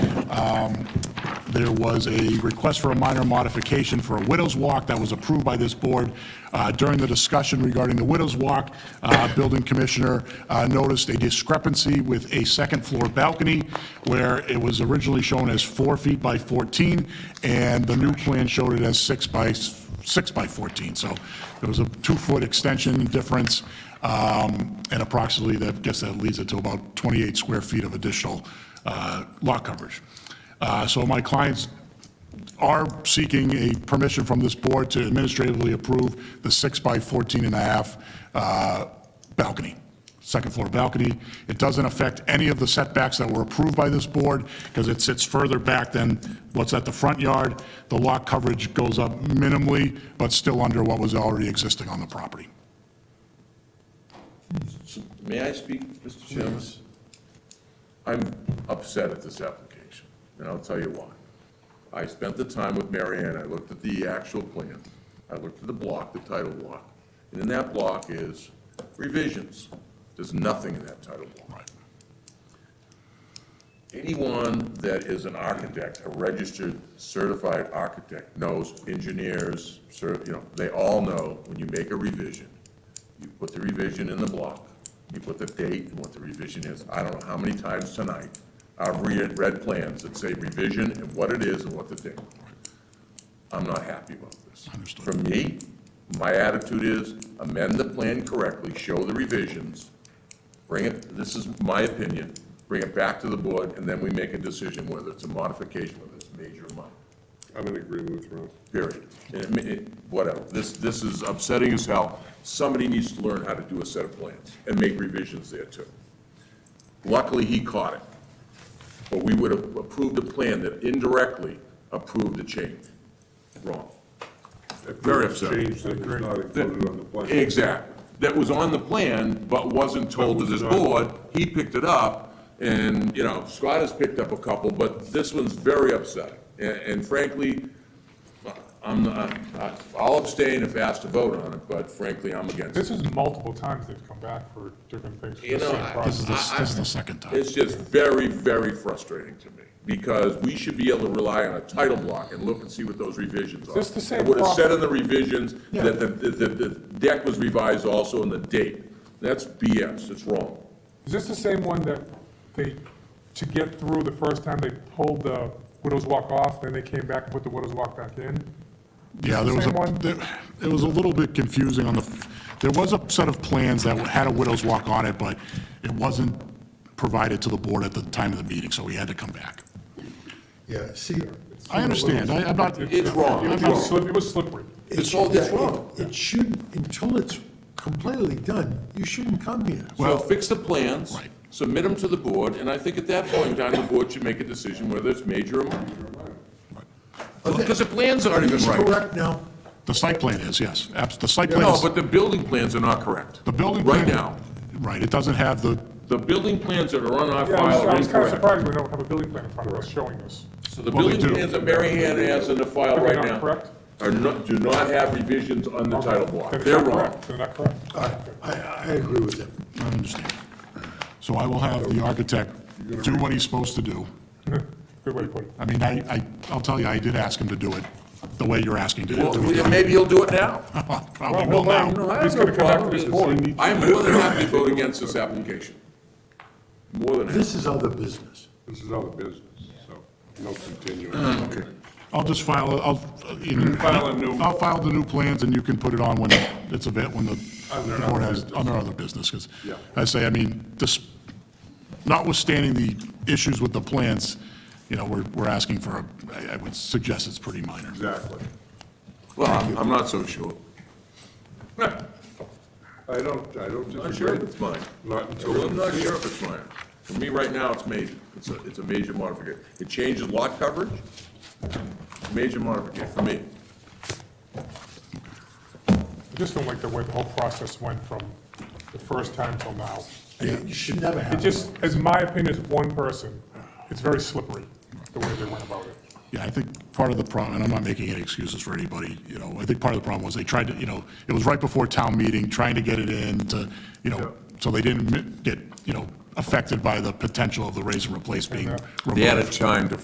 um, there was a request for a minor modification for a widow's walk that was approved by this board. Uh, During the discussion regarding the widow's walk, uh, building commissioner uh, noticed a discrepancy with a second-floor balcony where it was originally shown as four feet by 14, and the new plan showed it as six by, s- six by 14. So there was a two-foot extension difference, um, and approximately, that, I guess that leads it to about 28 square feet of additional uh, lot coverage. Uh, So my clients are seeking a permission from this board to administratively approve the six by 14 and a half uh, balcony, second floor balcony. It doesn't affect any of the setbacks that were approved by this board because it sits further back than what's at the front yard. The lot coverage goes up minimally, but still under what was already existing on the property. May I speak, Mr. Chairman? I'm upset at this application, and I'll tell you why. I spent the time with Mary Ann, I looked at the actual plan, I looked at the block, the title block, and in that block is revisions. There's nothing in that title block. Anyone that is an architect, a registered certified architect, knows engineers, cer- you know, they all know when you make a revision, you put the revision in the block, you put the date and what the revision is. I don't know how many times tonight I've read, read plans that say revision and what it is and what the date. I'm not happy about this. Understood. For me, my attitude is amend the plan correctly, show the revisions, bring it, this is my opinion, bring it back to the board, and then we make a decision whether it's a modification, whether it's major or minor, I'm in agreement with Ron. period. And it ma- it- Whatever, this, this is upsetting as hell. Somebody needs to learn how to do a set of plans and make revisions there too. Luckily, he caught it, but we would have approved a plan that indirectly approved the change. Wrong. Very upset. Change that was not included on the plan. Exactly. That was on the plan, but wasn't told to this board. He picked it up, and, you know, Scott has picked up a couple, but this one's very upsetting. A- And frankly, I'm, not- I- I'll abstain if asked to vote on it, but frankly, I'm against it. This is multiple times they've come back for different things for You the know, same I- This is project. the, this is the second time. It's just very, very frustrating to me, because we should be able to rely on a title block and look and see what those revisions are. Is this the same It would have said property? in the revisions that the, the, the deck was revised also and the date. That's BS, it's wrong. Is this the same one that they, to get through the first time, they pulled the widow's walk off, then they came back and put the widow's walk back in? Yeah, there was Same a, one? there- it was a little bit confusing on the, there was a set of plans that had a widow's walk on it, but it wasn't provided to the board at the time of the meeting, so we had to come back. Yeah, see, I understand, I- I'm not, It's wrong. It was slip- it was slippery. It's all that's wrong. it shouldn't, until it's completely done, you shouldn't come here. So fix the plans, Right. submit them to the board, and I think at that point in time, the board should make a decision whether it's major or minor. Because the plans aren't even It's right. correct now. the site plan is, yes, abs- the site plan No, is, but the building plans are not correct. the building. Right plan- now, Right, it doesn't have the, the building plans that are on our Yeah, file I was- I are was kind of incorrect. surprised we don't have a building plan in front of us showing this. So the Well, they building do. plans that Mary Ann has in the file Are they right not now correct? are not, do not have revisions on the title block. Then it's They're not wrong. correct. They're not correct. I, I I agree with him. I understand. So I will have the architect do what he's supposed to do. Good way to put it. I mean, I, I, I'll tell you, I did ask him to do it the way you're asking to do Well, it. maybe he'll do it now. Probably will Well, well, now. No, I have He's no gonna come back to problem. this board. I am more than happy to vote against this application. More than happy. This is other business. This is other business, so no continuing. Okay. I'll just file, I'll, you know, File a new- I'll file the new plans, and you can put it on when it's a bit, when the the board has, under other business, because Yeah. I say, I mean, this, notwithstanding the issues with the plants, you know, we're, we're asking for, a I I would suggest it's pretty minor. Exactly. Well, I'm- I'm not so sure. I don't, I don't Not disagree. sure if it's mine. Not until. I'm not sure if it's mine. For me, right now, it's major. It's a, it's a major modification. It changes lot coverage. Major modification for me. I just don't like the way the whole process went from the first time till now. It should never It happen. just, as my opinion as one person, it's very slippery, the way they went about it. Yeah, I think part of the problem, and I'm not making any excuses for anybody, you know, I think part of the problem was they tried to, you know, it was right before town meeting, trying to get it in to, you know, so they didn't mi- get, you know, affected by the potential of the raise and replace being removed. time to